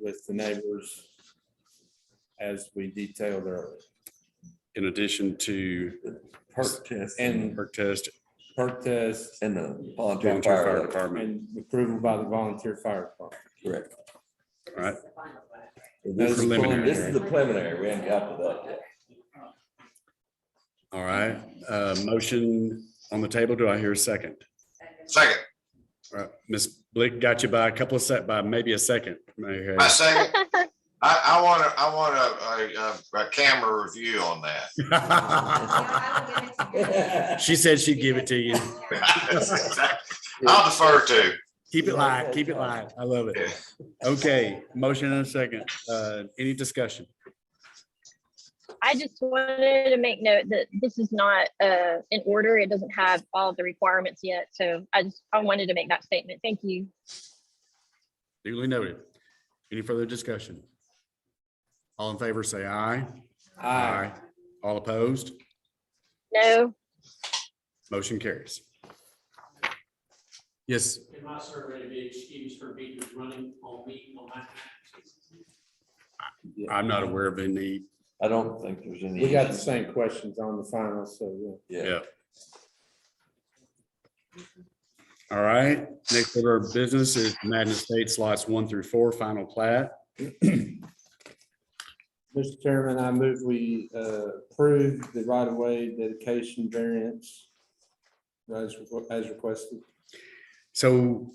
with the neighbors as we detailed earlier. in addition to Perk test. And perk test, perk test And the volunteer volunteer fire. fire alarm. department, and approval by the volunteer fire department. Correct. right? This is- Preliminary. This is the preliminary, we haven't got to that yet. All right, uh, motion on the table. Do I hear a second? Second, All right, Ms. Blick got you by a couple of set, by maybe a second. May I- my second. I, I want to, I want a, a, a camera review on that. She said she'd give it to you. That's exact- I'll defer to. Keep it live, keep it live. I love it. Okay, motion and a second. Uh, any discussion? I just wanted to make note that this is not uh, in order. It doesn't have all the requirements yet. So I just, I wanted to make that statement. Thank you. Duly noted. Any further discussion? All in favor, say aye. Aye. All opposed? No, Motion carries. Yes, In my survey, the excuse for meters running on me on my taxes. I'm not aware of any. I don't think there's any. We got the same questions on the final, so yeah. Yeah. All right, next order of business is Madden Estates lots one through four, final plat. Mr. Chairman, I move we uh, approve the right-of-way dedication variance as as requested. So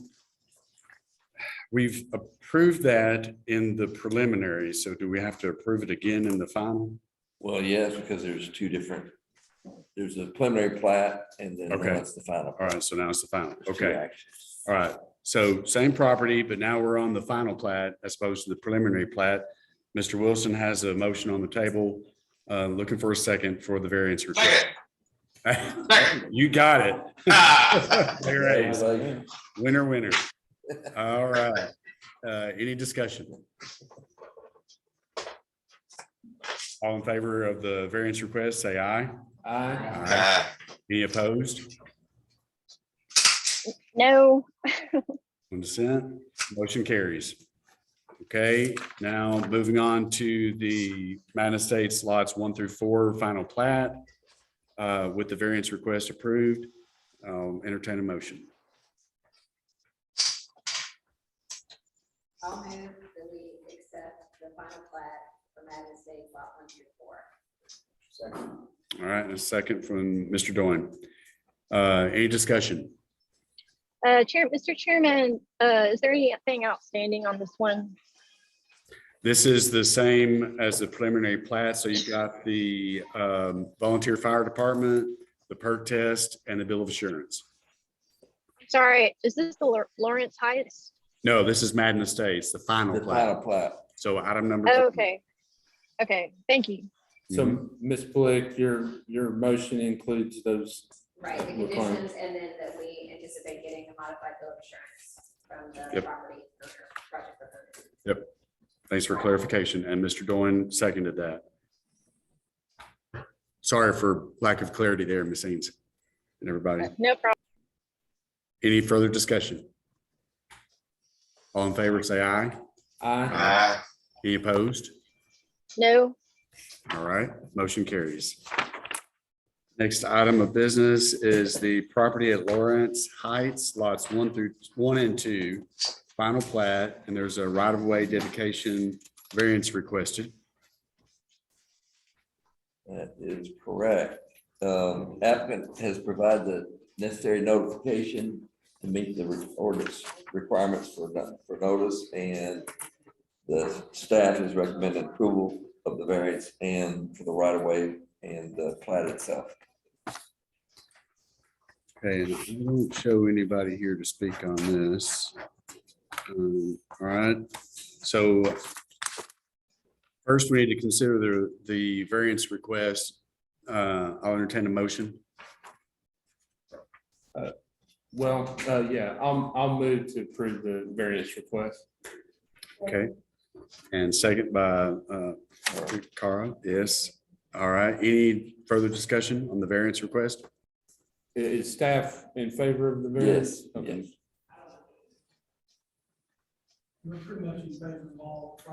we've approved that in the preliminary, so do we have to approve it again in the final? Well, yes, because there's two different, there's a preliminary plat and then Okay. that's the final. All right, so now it's the final. There's two Okay, actions. all right. So same property, but now we're on the final plat as opposed to the preliminary plat. Mr. Wilson has a motion on the table, uh, looking for a second for the variance request. Second, second. You got it. Ah. There it is. Like, Winner, winner. All right. Uh, Any discussion? All in favor of the variance request, say aye. Aye. Ah, Any opposed? no, One dissent. Motion carries. Okay, now moving on to the Madden Estates lots one through four, final plat. uh, With the variance request approved, I'll entertain a motion. I'll move that we accept the final plat for Madden State Lot One Through Four. All right, and a second from Mr. Doan. Uh, Any discussion? uh, Chair, Mr. Chairman, uh, is there anything outstanding on this one? This is the same as the preliminary plat, so you've got the um, volunteer fire department, the perk test, and the bill of assurance. Sorry, is this the Lor- Lawrence Heights? No, this is Madden Estates, the final The plat. final plat. So item number. Oh, okay. Okay, thank you. Mm-hmm. So, Ms. Blick, your, your motion includes those, Right, the Requirement. conditions, and then that we anticipate getting a modified bill of insurance from the Yep. property owner, project owner. Thanks for clarification, and Mr. Doan seconded that. Sorry for lack of clarity there, Ms. Ains and everybody. No problem. Any further discussion? All in favor, say aye. aye. ah. Any opposed? No, All right, motion carries. Next item of business is the property at Lawrence Heights, lots one through, one and two, final plat, and there's a right-of-way dedication variance requested. That is correct. Um, applicant has provided the necessary notification to meet the re- ordinance requirements for, no- for notice and the staff has recommended approval of the variance and for the right of way and the plat itself. Okay, and I don't show anybody here to speak on this. Um, All right, so first we need to consider the, the variance request. Uh, I'll entertain a motion. Well, uh, yeah, I'll, I'll move to approve the variance request. Okay, and second by uh, Cara, yes. All right, any further discussion on the variance request? I- Is staff in favor of the variance? Yes, Okay. We're pretty much in favor of all